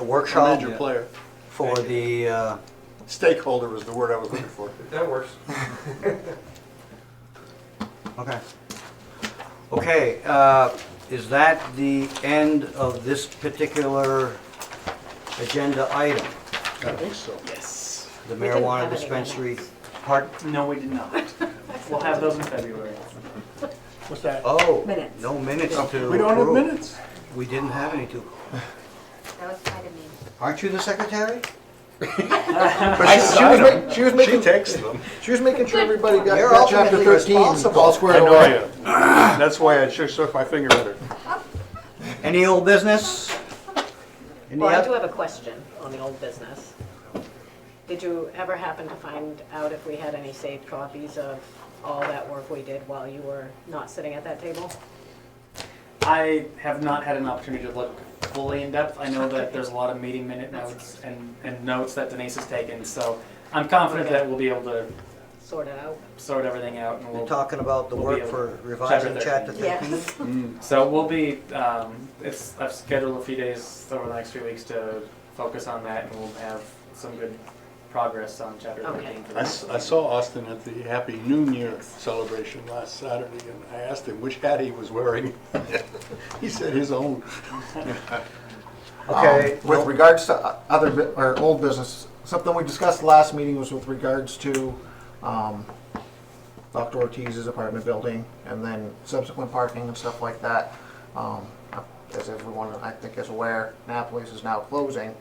A workshop major player. for the, uh, Stakeholder was the word I was looking for. That works. okay. Okay, uh, is that the end of this particular agenda item? I think so. Yes. The We didn't have marijuana any dispensary minutes. part, No, we did not. We'll have those in February. What's that? oh, Minutes. no minutes to approve. We don't have minutes. We didn't have any to. That was kind of mean. Aren't you the secretary? I signed them. She was She making, takes them. she was making sure everybody got You're got chapter ultimately thirteen responsible. all I squared know I away. am. That's why I shook, shook my finger at her. Any old business? Any Well, I oth- do have a question on the old business. Did you ever happen to find out if we had any saved copies of all that work we did while you were not sitting at that table? I have not had an opportunity to look fully in depth. I know that there's a lot of meeting minute notes and, and notes that Denise has taken, so I'm confident that we'll be able to Sorted out? sort everything out and You're we'll, talking about the We'll be work able- for revising chapter Chapter 13. thirteen? so we'll be, um, it's, I've scheduled a few days over the next few weeks to focus on that and we'll have some good progress on chapter Okay. thirteen. for I, the s- next I saw Austin at the Happy New Year celebration last Saturday, and I asked him which hat he was wearing. He said his own. Um, Okay, Um, With well, regards to o- other, bu- or old business, something we discussed last meeting was with regards to, um, Dr. Ortiz's apartment building and then subsequent parking and stuff like that. Um, as everyone, I think is aware, Napoli's is now closing.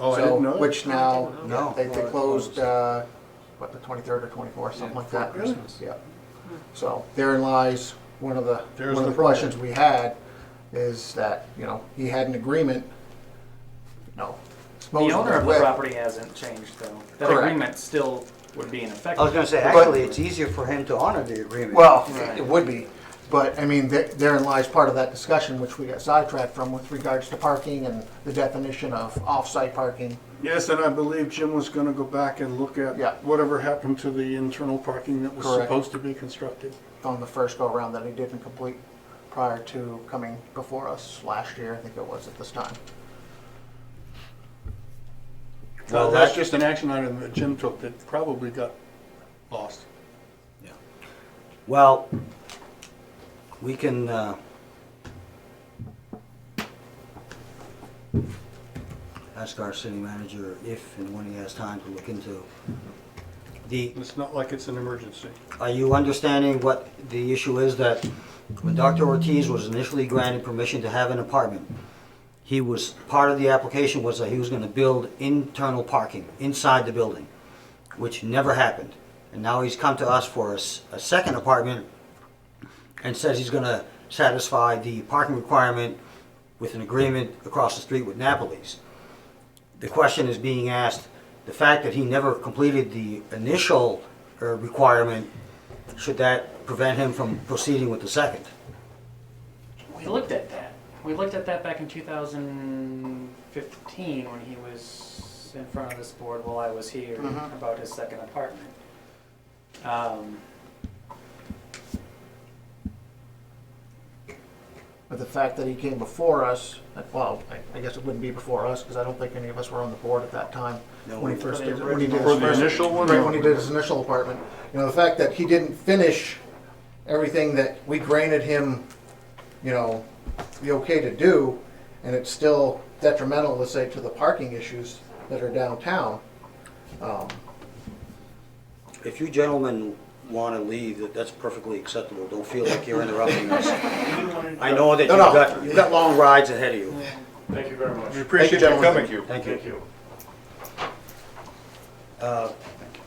Oh, I So, didn't know that. Which now, I didn't know. they, they No. closed, uh, what, the twenty-third or twenty-fourth, something like that. Christmas. Yeah. So therein lies one of the, There's one of the the questions we had is that, you know, he had an agreement. No. The owner of the With- property hasn't changed though. That Correct. agreement still would be in effect. I was gonna say, But- actually, it's easier for him to honor the agreement. Well, Right. it would be, but I mean, there- therein lies part of that discussion, which we got sidetracked from with regards to parking and the definition of off-site parking. Yes, and I believe Jim was gonna go back and look Yeah. at whatever happened to the internal parking that was Correct. supposed to be constructed. on the first go-around that he didn't complete prior to coming before us last year, I think it was at this time. Well, Well, that's that- just an action item that Jim took that probably got lost. Well, we can, uh, ask our city manager if and when he has time to look into the, It's not like it's an emergency. are you understanding what the issue is that when Dr. Ortiz was initially granted permission to have an apartment, he was, part of the application was that he was gonna build internal parking inside the building, which never happened. And now he's come to us for a, s- a second apartment and says he's gonna satisfy the parking requirement with an agreement across the street with Napoli's. The question is being asked, the fact that he never completed the initial uh, requirement, should that prevent him from proceeding with the second? We looked at that. We looked at that back in 2015 when he was in front of this board while I was here about his second apartment. Um, But the fact that he came before us, like, well, I- I guess it wouldn't be before us, because I don't think any of us were on the board at that time. No, When he we- first For the did, when he did For his the first. initial one? Right, when he did his initial apartment. You know, the fact that he didn't finish everything that we granted him, you know, the okay to do, and it's still detrimental, let's say, to the parking issues that are downtown. Um, If you gentlemen want to leave, that- that's perfectly acceptable. Don't feel like you're interrupting us. I know that you've No, no. got, you've got long rides ahead of you. Thank you very much. We appreciate you gentlemen. coming. Thank you. Thank you.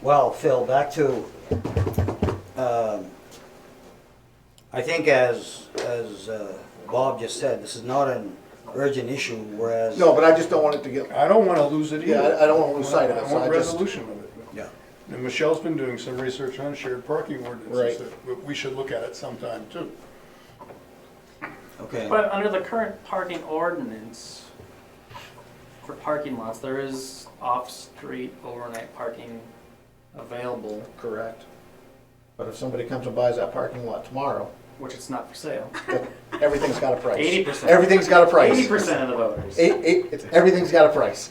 Well, Phil, back to, um, I think as, as uh, Bob just said, this is not an urgent issue, whereas. No, but I just don't want it to get, I don't want to lose it either. Yeah, I- I don't wanna lose sight of it, I so want I just- resolution of it. Yeah. And Michelle's been doing some research on shared parking Right. ordinances that we- we should look at it sometime too. Okay. but under the current parking ordinance for parking lots, there is off-street overnight parking available, correct. But if somebody comes and buys that parking lot tomorrow, which it's not for sale. everything's got a price. 80%. Everything's got a price. 80% of the voters. Eight- eight- it's- everything's got a price.